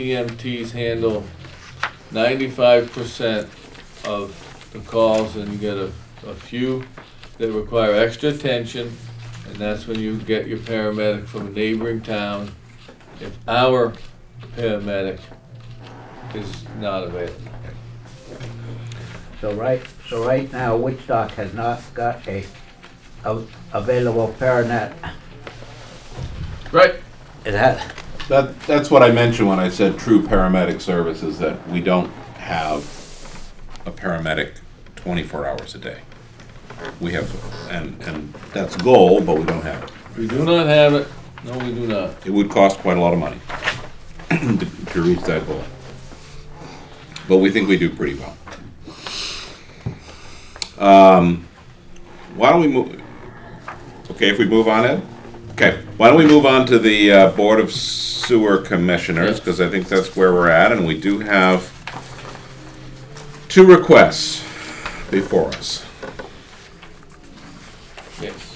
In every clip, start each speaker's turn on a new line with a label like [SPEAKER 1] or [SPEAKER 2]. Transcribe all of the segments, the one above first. [SPEAKER 1] EMTs E handle ninety-five percent of the calls and you get a, a few that require extra attention. And that's when you get your paramedic from a neighboring town. If our paramedic is not available.
[SPEAKER 2] So right, so right now, Woodstock has not got a, a available paranet.
[SPEAKER 1] Right.
[SPEAKER 2] It has,
[SPEAKER 3] That, that's what I mentioned when I said true paramedic services, that we don't have a paramedic twenty-four hours a day. We have, and, and that's a goal, but we don't have it.
[SPEAKER 1] We do not have it. No, we do not.
[SPEAKER 3] It would cost quite a lot of money to to reach that goal. But we think we do pretty well. Um, Why don't we move, okay, if we move on, Ed? Okay, why don't we move on to the uh, Board of Sewer Commissioners, because I think that's where we're at, and we do have two requests before us.
[SPEAKER 1] Yes.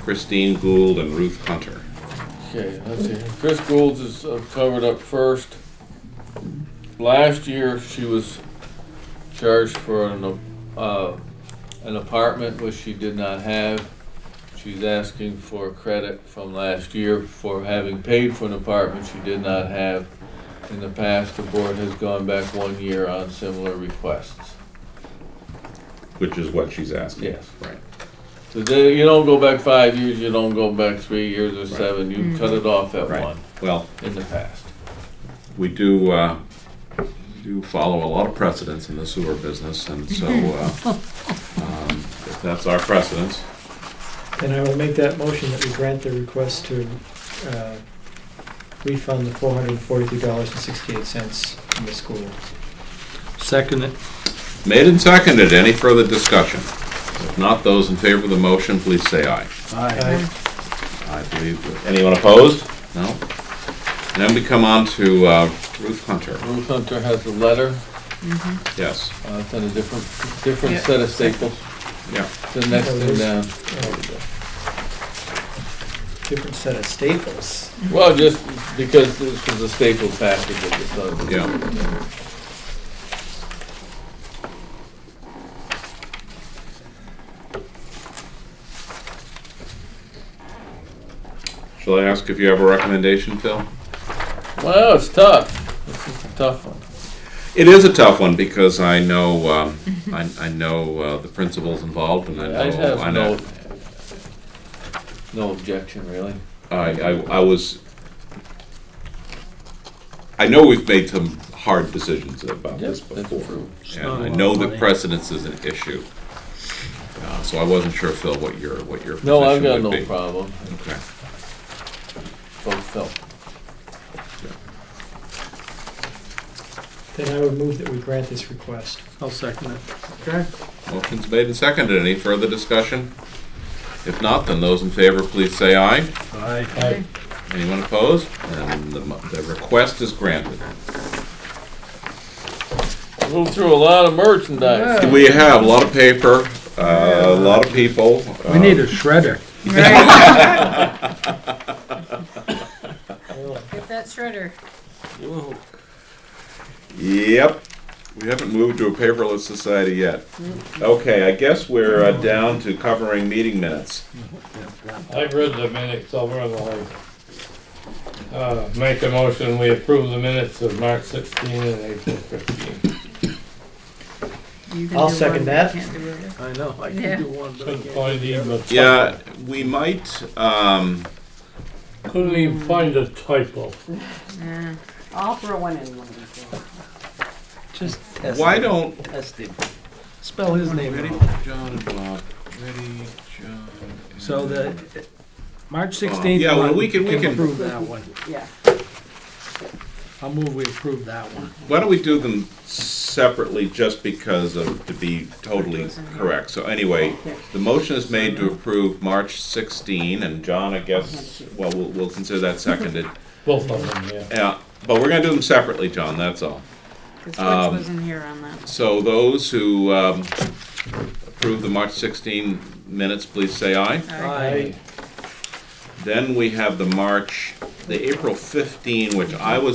[SPEAKER 3] Christine Gould and Ruth Hunter.
[SPEAKER 1] Okay, let's see. Chris Gould's is uh, covered up first. Last year, she was charged for an, a- uh, an apartment which she did not have. She's asking for credit from last year for having paid for an apartment she did not have. In the past, the board has gone back one year on similar requests.
[SPEAKER 3] Which is what she's asking.
[SPEAKER 1] Yes.
[SPEAKER 3] Right.
[SPEAKER 1] So they- you don't go back five years, you don't go back three years or seven, you cut it off at
[SPEAKER 3] Right.
[SPEAKER 1] one
[SPEAKER 3] Well,
[SPEAKER 1] in the past.
[SPEAKER 3] we do, uh, do follow a lot of precedents in the sewer business, and so, uh, um, if that's our precedence.
[SPEAKER 4] And I will make that motion that we grant the request to uh, refund the four hundred and forty-three dollars and sixty-eight cents from the school.
[SPEAKER 5] Second it.
[SPEAKER 3] Made and seconded, any further discussion? If not, those in favor of the motion, please say aye.
[SPEAKER 4] Aye.
[SPEAKER 3] I believe. that- Anyone opposed? No? And then we come on to, uh, Ruth Hunter,
[SPEAKER 1] Ruth Hunter has a letter,
[SPEAKER 3] yes,
[SPEAKER 1] uh, it's in a different, different set of staples,
[SPEAKER 3] yeah.
[SPEAKER 1] it's the next thing down.
[SPEAKER 4] Different set of staples.
[SPEAKER 1] Well, just because this was a staple package at the time.
[SPEAKER 3] Yeah. Shall I ask if you have a recommendation, Phil?
[SPEAKER 1] Well, it's tough, this is a tough one.
[SPEAKER 3] It is a tough one because I know, um, I, I know uh, the principals involved and I
[SPEAKER 1] I
[SPEAKER 3] know, I
[SPEAKER 1] have no,
[SPEAKER 3] know.
[SPEAKER 1] no objection, really.
[SPEAKER 3] I, I, I was, I know we've made some hard decisions about this
[SPEAKER 1] Yes, that's
[SPEAKER 3] before.
[SPEAKER 1] true.
[SPEAKER 5] not a
[SPEAKER 3] And I
[SPEAKER 5] lot of
[SPEAKER 3] know that
[SPEAKER 5] money.
[SPEAKER 3] precedence is an issue. Uh, So I wasn't sure, Phil, what your, what your position
[SPEAKER 1] No, I've got
[SPEAKER 3] would
[SPEAKER 1] no
[SPEAKER 3] be.
[SPEAKER 1] problem,
[SPEAKER 3] Okay.
[SPEAKER 1] both felt.
[SPEAKER 4] Then I would move that we grant this request.
[SPEAKER 5] I'll second it.
[SPEAKER 4] Okay.
[SPEAKER 3] Motion's made and seconded. Any further discussion? If not, then those in favor, please say aye.
[SPEAKER 5] Aye.
[SPEAKER 3] Anyone opposed? And the, mo- the request is granted.
[SPEAKER 1] Moved through a lot of merchandise.
[SPEAKER 3] We have a lot of paper, uh, a lot of people. Uh,
[SPEAKER 5] We need a shredder.
[SPEAKER 6] Get that shredder.
[SPEAKER 3] Yep. We haven't moved to a paperless society yet. Okay, I guess we're uh, down to covering meeting minutes.
[SPEAKER 7] I've read the minutes over and I'll, uh, make a motion, we approve the minutes of March sixteen and April fifteen.
[SPEAKER 6] You can
[SPEAKER 4] I'll
[SPEAKER 6] do
[SPEAKER 4] second
[SPEAKER 6] one, but
[SPEAKER 4] that.
[SPEAKER 6] you can't do it.
[SPEAKER 5] I know, I
[SPEAKER 6] Yeah.
[SPEAKER 5] can do one, but I
[SPEAKER 7] Couldn't
[SPEAKER 5] can't.
[SPEAKER 7] find even a typo.
[SPEAKER 3] Yeah, we might, um,
[SPEAKER 7] Couldn't even find a typo.
[SPEAKER 8] I'll throw one in one of these. days.
[SPEAKER 4] Just test,
[SPEAKER 3] why don't
[SPEAKER 4] test him. Spell his name
[SPEAKER 3] Ready,
[SPEAKER 4] out.
[SPEAKER 3] John and Bob. Ready, John. and-
[SPEAKER 5] So the, March 16th.
[SPEAKER 3] Yeah, well,
[SPEAKER 5] one,
[SPEAKER 3] we can- we can-
[SPEAKER 5] Approve that one.
[SPEAKER 8] Yeah.
[SPEAKER 5] I'll move we approve that one.
[SPEAKER 3] Why don't we do them separately, just because of, to be totally correct? So anyway, the motion is made to approve March 16, and John, I guess, well, we'll, we'll consider that seconded.
[SPEAKER 7] Both of them, yeah.
[SPEAKER 3] Yeah, but we're gonna do them separately, John, that's all.
[SPEAKER 6] 'Cause
[SPEAKER 3] Um,
[SPEAKER 6] Rich wasn't here on that.
[SPEAKER 3] So those who, um, approve the March 16 minutes, please say aye.
[SPEAKER 6] All
[SPEAKER 5] Aye.
[SPEAKER 6] right.
[SPEAKER 3] Then we have the March, the April 15, which I was